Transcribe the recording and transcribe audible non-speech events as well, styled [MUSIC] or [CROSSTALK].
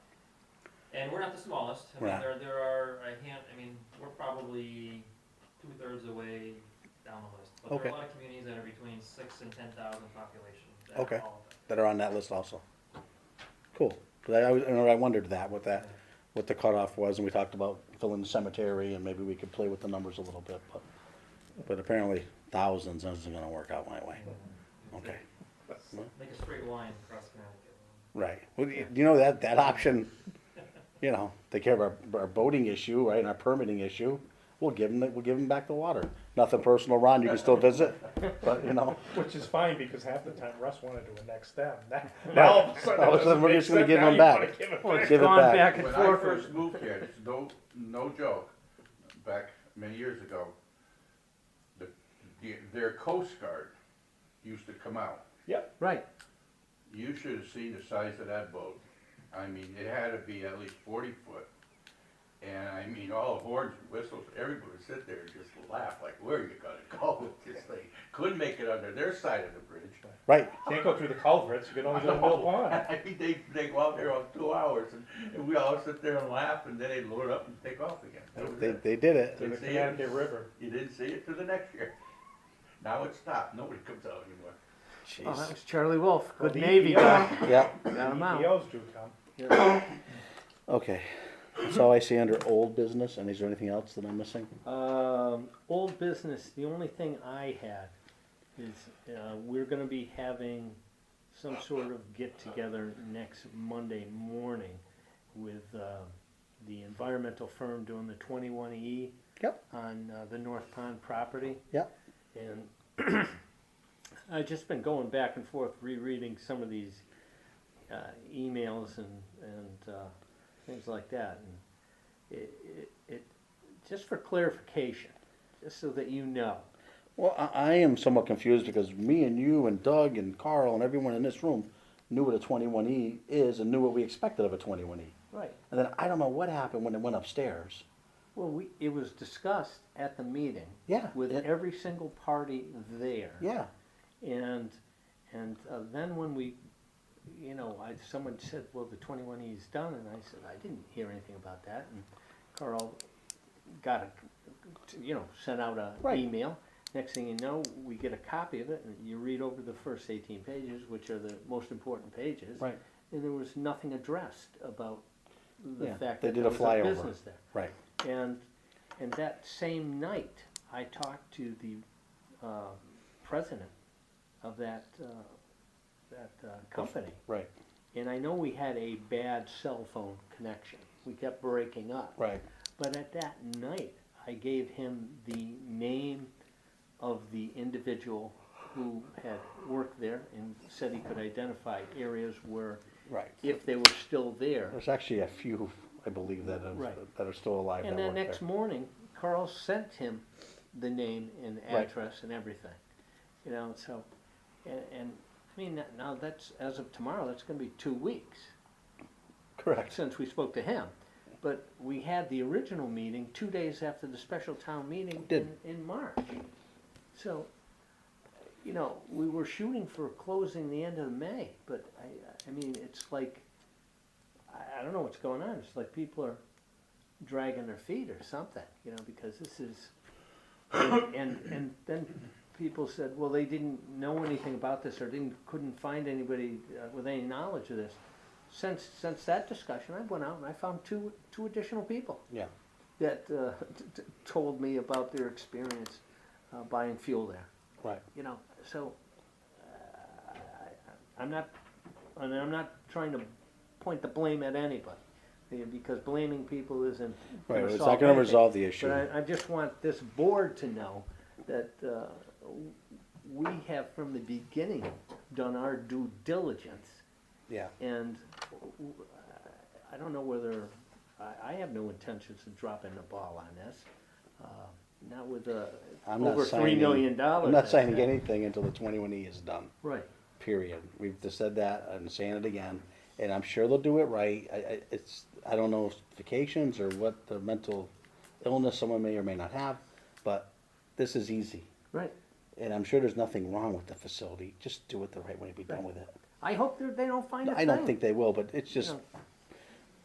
and we're not the smallest. I We're mean, not. there, there are a hand, I mean, we're probably two-thirds of the way down the list. But there Okay. are a lot of communities that are between six and ten thousand population. that Okay. are all of that are on that list also. Cool. 'Cause I, I was- I know I wondered that, what that, what the cutoff was, and we talked about filling the cemetery, and maybe we could play with the numbers a little bit, but, but apparently thousands isn't gonna work out my way. it. Okay, Like a straight line across Connecticut. right. Well, you you know, that, that option, you know, they care of our, our boating issue, right, and our permitting issue. We'll give them, we'll give them back the water. Nothing personal, Ron, you can still visit, but, you know. Which is fine, because half the time Russ wanted to annex them. [LAUGHS] Now, now all of a [LAUGHS] sudden, All of a it sudden, doesn't we're make just gonna sense. give Now them you back. wanna give it Well, back. give it gone back. back and When I forth. first moved here, it's no, no joke, back many years ago, the, the- their Coast Guard used to come out. Yep, Right, You should have seen the size of that boat. I mean, it had to be at least forty foot. And I mean, all the horns and whistles, everybody would sit there and just laugh, like, where are you gonna [LAUGHS] go with this thing? Couldn't make it under their side of the bridge. [LAUGHS] Right, can't go through the culverts, you can only go to Mill Pond. I mean, they, they go out there on two hours and, and we all sit there and laugh and then they load up and take off again. That was they, it. they did it. To the See it? Connecticut River. You didn't see it till the next year. Now it's stopped, nobody comes out anymore. Oh, well, that Jeez. was Charlie Wolf, good The Navy EPO guy, Yeah. got him out. EPOs E do come. Okay, so I see under old business, and is there anything else that I'm missing? Um, old business, the only thing I had is, uh, we're gonna be having some sort of get-together next Monday morning with, uh, the environmental firm doing the twenty-one E. Yep. On, uh, the North Pond property. Yep. And [CLEARS THROAT] I've just been going back and forth rereading some of these, uh, emails and, and, uh, things like that. And it, it, it just for clarification, just so that you know. Well, I, I am somewhat confused because me and you and Doug and Carl and everyone in this room knew what a twenty-one E is and knew what we expected of a twenty-one E. Right. And then I don't know what happened when it went upstairs. Well, we, it was discussed at the meeting. Yeah, With it- every single party there. Yeah, And, and uh, then when we, you know, I, someone said, well, the twenty-one E is done, and I said, I didn't hear anything about that, and Carl got a, you know, sent out a Right. email. Next thing you know, we get a copy of it, and you read over the first eighteen pages, which are the most important pages. Right. And there was nothing addressed about the Yeah, fact they that did a there was flyover. business there. right. And, and that same night, I talked to the uh, president of that, uh, that uh, company. Right, And I know we had a bad cell phone connection. We kept breaking up. right. But at that night, I gave him the name of the individual who had worked there and said he could identify areas where, Right. if they were still there, There's actually a few, I believe, that are, Right. that are still alive that And then work next there. morning, Carl sent him the name and Right. address and everything. You know, so, and, and, I mean, that- now that's, as of tomorrow, that's gonna be two weeks Correct, since we spoke to him. But we had the original meeting two days after the special town meeting in, Did. in March. So, you know, we were shooting for closing the end of May, but I, I mean, it's like, I, I don't know what's going on, it's like people are dragging their feet or something, you know, because this is, and, and, and then people said, well, they didn't know anything about this or didn't, couldn't find anybody uh, with any knowledge of this. Since, since that discussion, I went out and I found two, two additional people yeah. that uh, t- t- told me about their experience uh, buying fuel there. Right. You know, so uh, I- I'm not, and I'm not trying to point the blame at anybody, eh, because blaming people isn't. Right, gonna it's solve not gonna anything. resolve the issue. But I, I just want this board to know that uh, w- we have from the beginning done our due diligence Yeah, and w- w- I don't know whether, I, I have no intentions of dropping the ball on this. Uh, Not with the, I'm not over three signing- million dollars. I'm not that's signing happened. anything until the twenty-one E is done. Right, period. We've just said that, I'm saying it again, and I'm sure they'll do it right. I, I, it's, I don't know if vacations or what the mental illness someone may or may not have, but this is easy. right. And I'm sure there's nothing wrong with the facility, just do it the right way, and be done with it. I hope they're- they don't find a thing. I don't think they will, but it's just, No.